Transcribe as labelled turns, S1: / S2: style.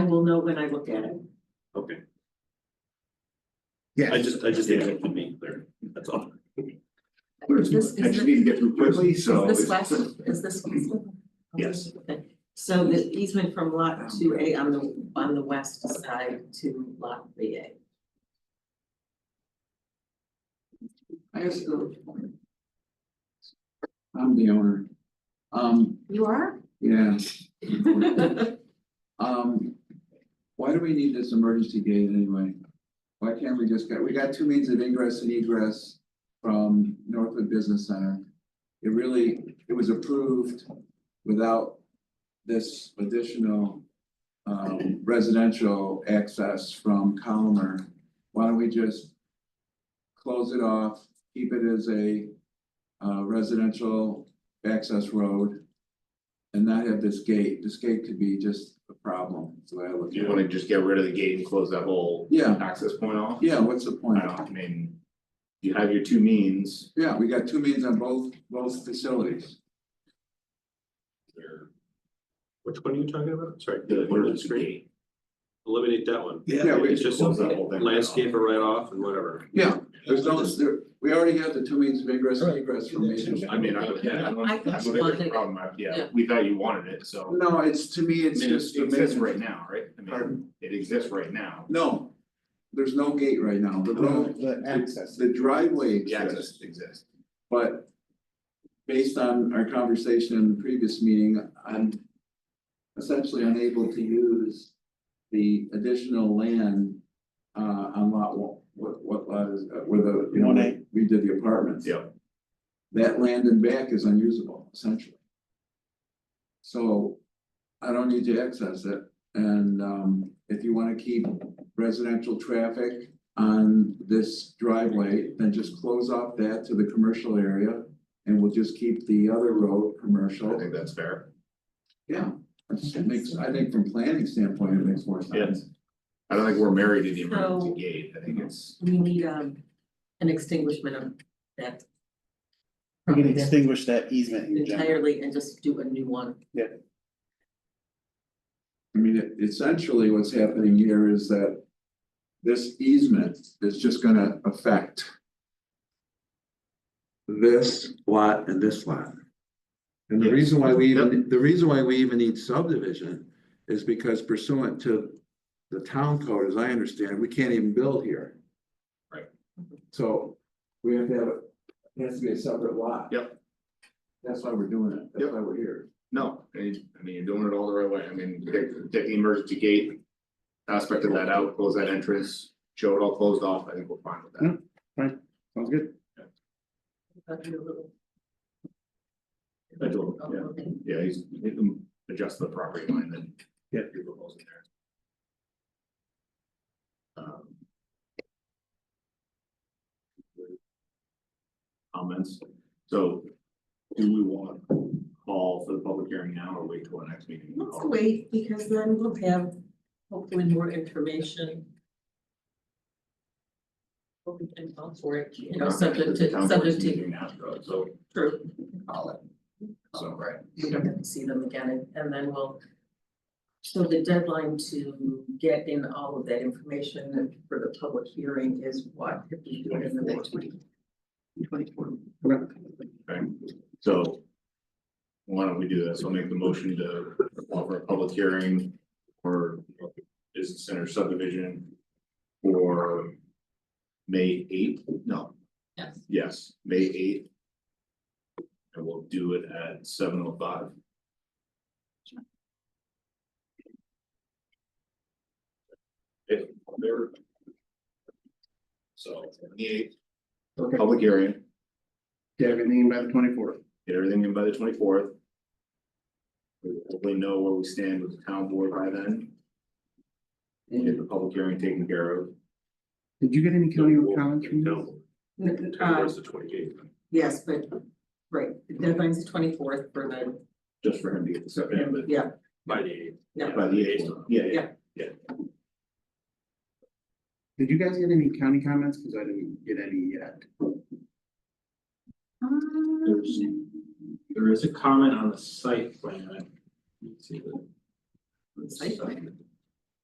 S1: know when I look at it.
S2: Okay,
S3: Yeah.
S2: I just, I just think it would be clear, that's all.
S3: Where's-
S1: This-
S3: I just need to get through quickly, so.
S1: Is this
S3: it's-
S1: last, is this easement?
S3: Yes.
S1: Okay. So the easement from lot two A on the, on the west side to lot three A.
S4: I guess the. I'm the owner. Um,
S1: You are?
S4: yeah, um, why do we need this emergency gate anyway? Why can't we just get, we got two means of ingress and egress from Northwood Business Center. It really, it was approved without this additional um residential access from Colomer. Why don't we just close it off, keep it as a uh residential access road and not have this gate. This gate could be just a problem, is the way I look
S5: Do you
S4: at it.
S5: wanna just get rid of the gate and close that whole
S4: Yeah,
S5: access point off?
S4: yeah, what's the point?
S5: I don't, I mean, you have your two means,
S4: Yeah, we got two means on both, both facilities.
S5: or
S2: Which one are you talking about? Sorry,
S5: the,
S2: the one on the
S5: the
S2: screen,
S5: gate,
S2: eliminate that one.
S4: Yeah, we-
S2: It's just
S5: close that whole thing. right off.
S2: landscape or right off and whatever.
S4: Yeah, there's no, there, we already have the two means of ingress and egress from Main Street.
S5: I mean, I don't, yeah, I don't,
S1: I
S5: I
S1: think
S5: don't
S1: you
S5: think there's
S1: wanted
S5: a
S1: it.
S5: problem, I- yeah,
S1: Yeah.
S5: we thought you wanted it, so.
S4: No, it's, to me, it's
S5: I mean,
S4: just.
S5: It
S4: a
S5: exists
S4: main-
S5: right now, right? I mean,
S4: Pardon?
S5: it exists right now.
S4: No, there's no gate right now, the road,
S6: The access.
S4: the
S5: The
S4: driveway exists,
S5: access exists.
S4: but. Based on our conversation in the previous meeting, I'm essentially unable to use. The additional land, uh, on lot, one- what, what lot is, uh, where the, you know,
S6: One A.
S4: we did the apartments.
S5: Yeah.
S4: that land and back is unusable essentially. So I don't need to access it and um if you wanna keep residential traffic on this driveway, then just close off that to the commercial area and we'll just keep the other road
S5: I
S4: commercial.
S5: think that's fair.
S4: Yeah, it just makes, I think from planning standpoint, it makes more sense.
S5: I don't think we're married to the
S1: So-
S5: emergency gate, I think it's,
S1: We need um an extinguishment of that.
S6: We can
S1: from that
S6: extinguish that easement in general.
S1: Entirely and just do a new one.
S4: I mean, it- essentially what's happening here is that this easement is just gonna affect this lot and this lot. And the
S5: Yes.
S4: reason why we even, the reason why we even need subdivision is because pursuant to the town code, as I understand, it, we can't even build here.
S5: Right.
S4: So we have to have, a- it has to be a separate lot.
S5: Yep.
S4: That's why we're doing it. That's
S5: Yep.
S4: why we're here.
S5: no, I mean, I mean, you're doing it all the right way. I mean, take, take the emergency gate. Aspect of that out, close that entrance, show it all closed off, I think we're fine with that.
S6: Sounds good.
S5: I do,
S1: Oh,
S5: yeah, yeah, he's, he can adjust the property line then.
S6: Yeah.
S5: You're proposing there. Um, Comments, so do we want to call for the public hearing now or wait till the next meeting?
S1: Let's wait, because then we'll have hopefully more information. What we can call for it, you know, subject
S5: The
S1: to,
S5: town board's
S1: subject to,
S5: meeting now, so- So,
S1: true,
S5: call it. So, right,
S1: we don't have to see them again, and- and then we'll. So the deadline to get in all of that information for the public hearing is what, if we do it in the next week? Twenty-four.
S5: okay, so. Why don't we do this? I'll make the motion to offer a public hearing for business center subdivision. For May eighth, no,
S1: Yes.
S5: yes, May eighth. And we'll do it at seven oh five. If there. So, the eighth,
S6: Okay.
S5: public hearing.
S6: Yeah, everything by the twenty-fourth.
S5: get everything in by the twenty fourth. We hopefully know where we stand with the town board by then. And get the public hearing taken care of.
S6: Did you get any county comments from this?
S2: No,
S1: Uh,
S2: towards the twenty eighth.
S1: yes, but, right, the deadline's the twenty-fourth for the,
S5: Just for him to get the stuff in, but
S1: yeah,
S2: by the eighth.
S1: yeah.
S5: by the eighth, yeah, yeah.
S6: Did you guys get any county comments? Cause I didn't get any yet.
S2: There's, there is a comment on the site plan. Let's see the-
S1: Site plan.